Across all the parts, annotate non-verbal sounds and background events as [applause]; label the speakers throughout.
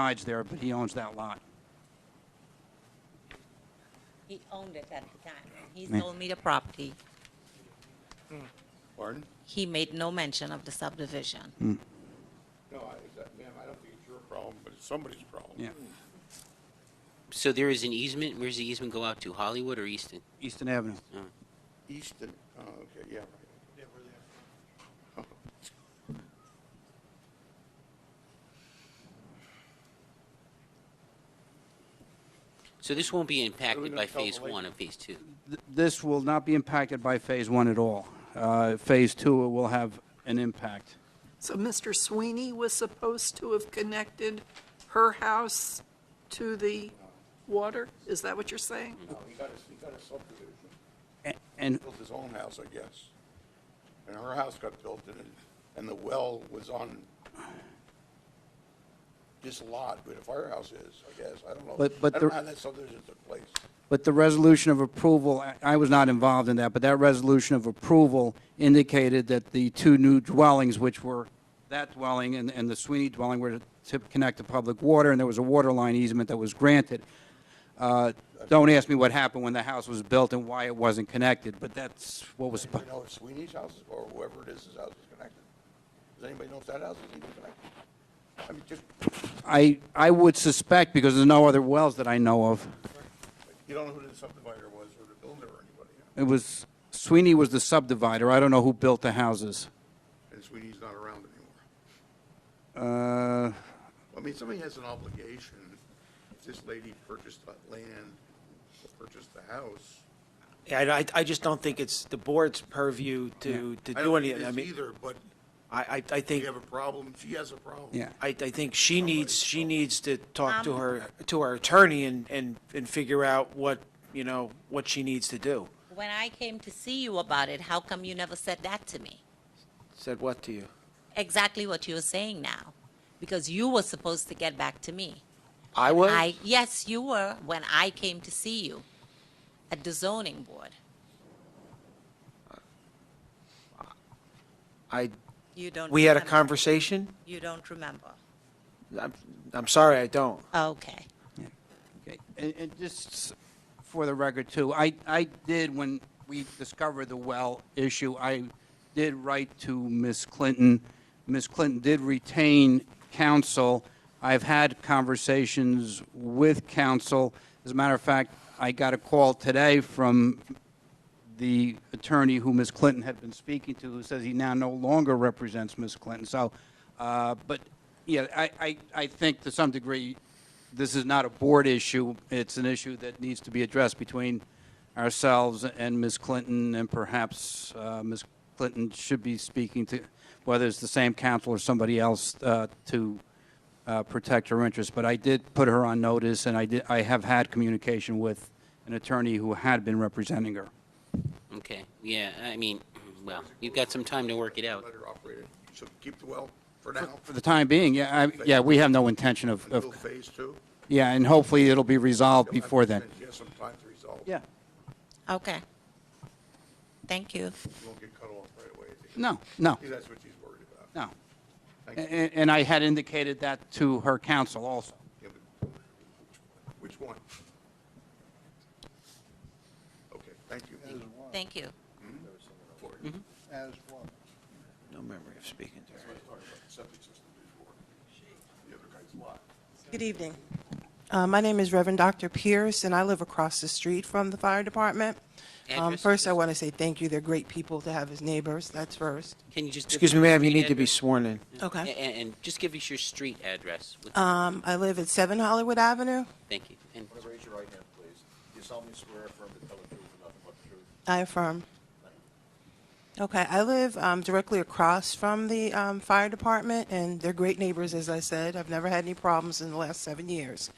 Speaker 1: sides there, but he owns that lot.
Speaker 2: He owned it at the time. He
Speaker 1: Yeah.
Speaker 2: sold me the property.
Speaker 3: Pardon?
Speaker 2: He made no mention of the subdivision.
Speaker 4: Hmm.
Speaker 3: No, I, that- ma'am, I don't think it's your problem, but it's somebody's problem.
Speaker 1: Yeah.
Speaker 5: So there is an easement. Where's the easement go out to? Hollywood or Easton? Oh.
Speaker 1: Easton Avenue.
Speaker 3: Easton, oh, okay, yeah, right.
Speaker 5: So this won't be impacted
Speaker 3: gonna
Speaker 5: by
Speaker 3: tell the
Speaker 5: phase one
Speaker 3: lady.
Speaker 5: and phase two.
Speaker 1: Th- This will not be impacted by Phase 1 at all. Uh, Phase 2 will have an impact.
Speaker 6: So Mr. Sweeney was supposed to have connected her house to the water? Is that what you're saying?
Speaker 3: No, he got a, he got a subdivision,
Speaker 1: A- And,
Speaker 3: built his own house, I guess. And her house got built and, it- and the well was on this lot where the firehouse is, I guess, I don't know.
Speaker 1: But- but
Speaker 3: I
Speaker 1: there-
Speaker 3: don't know how that subdivision took place.
Speaker 1: but the resolution of approval, I- I was not involved in that, but that resolution of approval indicated that the two new dwellings, which were that dwelling and and the Sweeney dwelling, were to connect to public water, and there was a water line easement that was granted. Uh, Don't ask me what happened when the house was built and why it wasn't connected, but that's what was,
Speaker 3: Do you know if Sweeney's house is, or whoever it is, his house is connected? Does anybody know if that house is even connected? I mean, just,
Speaker 1: I, I would suspect, because there's no other wells that I know of.
Speaker 3: you don't know who the subdivider was or the builder or anybody. yeah?
Speaker 1: It was, Sweeney was the subdivider, I don't know who built the houses.
Speaker 3: And Sweeney's not around anymore.
Speaker 1: Uh,
Speaker 3: I mean, somebody has an obligation, if this lady purchased that land, purchased the house.
Speaker 4: Yeah, I, I- I just don't think it's the board's purview to, to do
Speaker 3: I
Speaker 4: anything. I
Speaker 3: don't think it is
Speaker 4: mean,
Speaker 3: either, but
Speaker 4: I, I, I
Speaker 3: we
Speaker 4: think,
Speaker 3: have a problem, she has a problem.
Speaker 1: Yeah.
Speaker 4: I, I think she needs, she needs to talk to
Speaker 2: Um,
Speaker 4: her, to her attorney and, and, and figure out what, you know, what she needs to do.
Speaker 2: When I came to see you about it, how come you never said that to me?
Speaker 4: Said what to you?
Speaker 2: Exactly what you're saying now, because you were supposed to get back to me.
Speaker 4: I was?
Speaker 2: I, yes, you were when I came to see you at the zoning board.
Speaker 4: I,
Speaker 2: You don't.
Speaker 4: we had a
Speaker 2: remember.
Speaker 4: conversation?
Speaker 2: You don't remember.
Speaker 4: I'm, I'm sorry, I don't.
Speaker 2: Okay.
Speaker 1: okay. And, and just for the record too, I, I did, when we discovered the well issue, I did write to Ms. Clinton. Ms. Clinton did retain counsel. I've had conversations with counsel. As a matter of fact, I got a call today from the attorney who Ms. Clinton had been speaking to, who says he now no longer represents Ms. Clinton. So, uh, but, yeah, I, I, I think to some degree, this is not a board issue. It's an issue that needs to be addressed between ourselves and Ms. Clinton, and perhaps uh, Ms. Clinton should be speaking to, whether it's the same counsel or somebody else, uh, to uh, protect her interests. But I did put her on notice, and I did, I have had communication with an attorney who had been representing her.
Speaker 5: Okay. Yeah. I mean, [clears throat] well, you've got some time to work it out.
Speaker 3: Let her operate it, so keep the well for now,
Speaker 1: For the time being, yeah, I, yeah, we have no intention of,
Speaker 3: until
Speaker 1: of,
Speaker 3: phase two.
Speaker 1: yeah, and hopefully it'll be resolved before then.
Speaker 3: She has some time to resolve.
Speaker 1: Yeah,
Speaker 2: Okay. Thank you.
Speaker 3: She won't get cut off right away. I think.
Speaker 1: no, no,
Speaker 3: I think that's what she's worried about.
Speaker 1: no.
Speaker 3: Thank
Speaker 1: A-
Speaker 3: you.
Speaker 1: a- And I had indicated that to her counsel also.
Speaker 3: Yeah, but Which one? Okay, thank you.
Speaker 2: Thank you.
Speaker 3: For it.
Speaker 4: No memory of speaking to her.
Speaker 3: Let's talk about the septic system before. The other guy's lot.
Speaker 7: Good evening. Uh, My name is Reverend Dr. Pierce, and I live across the street from the fire department. Um,
Speaker 5: Address,
Speaker 7: First, I
Speaker 5: please.
Speaker 7: want to say thank you. They're great people to have as neighbors, that's first.
Speaker 5: Can you just give
Speaker 4: Excuse
Speaker 5: us
Speaker 4: me,
Speaker 5: your
Speaker 4: ma'am, you
Speaker 5: street
Speaker 4: need to be
Speaker 5: address?
Speaker 4: sworn in.
Speaker 5: A- And, and just give us your street address. With-
Speaker 7: Um, I live at 7 Hollywood Avenue.
Speaker 5: Thank you. And
Speaker 8: Want to raise your right hand, please? Do you solemnly swear or affirm to tell the truth and nothing but the truth?
Speaker 7: I affirm. Okay, I live um, directly across from the um, fire department, and they're great neighbors, as I said. I've never had any problems in the last seven years.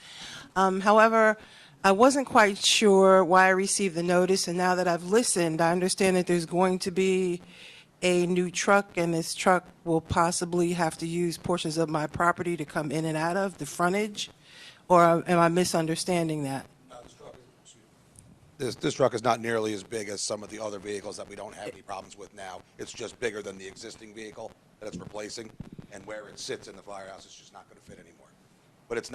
Speaker 7: Um, However, I wasn't quite sure why I received the notice, and now that I've listened, I understand that there's going to be a new truck, and this truck will possibly have to use portions of my property to come in and out of, the frontage, or am I misunderstanding that?
Speaker 9: This, this truck is not nearly as big as some of the other vehicles that we don't have any problems with now. It's just bigger than the existing vehicle that it's replacing, and where it sits in the firehouse, it's just not going to fit anymore. But it's not.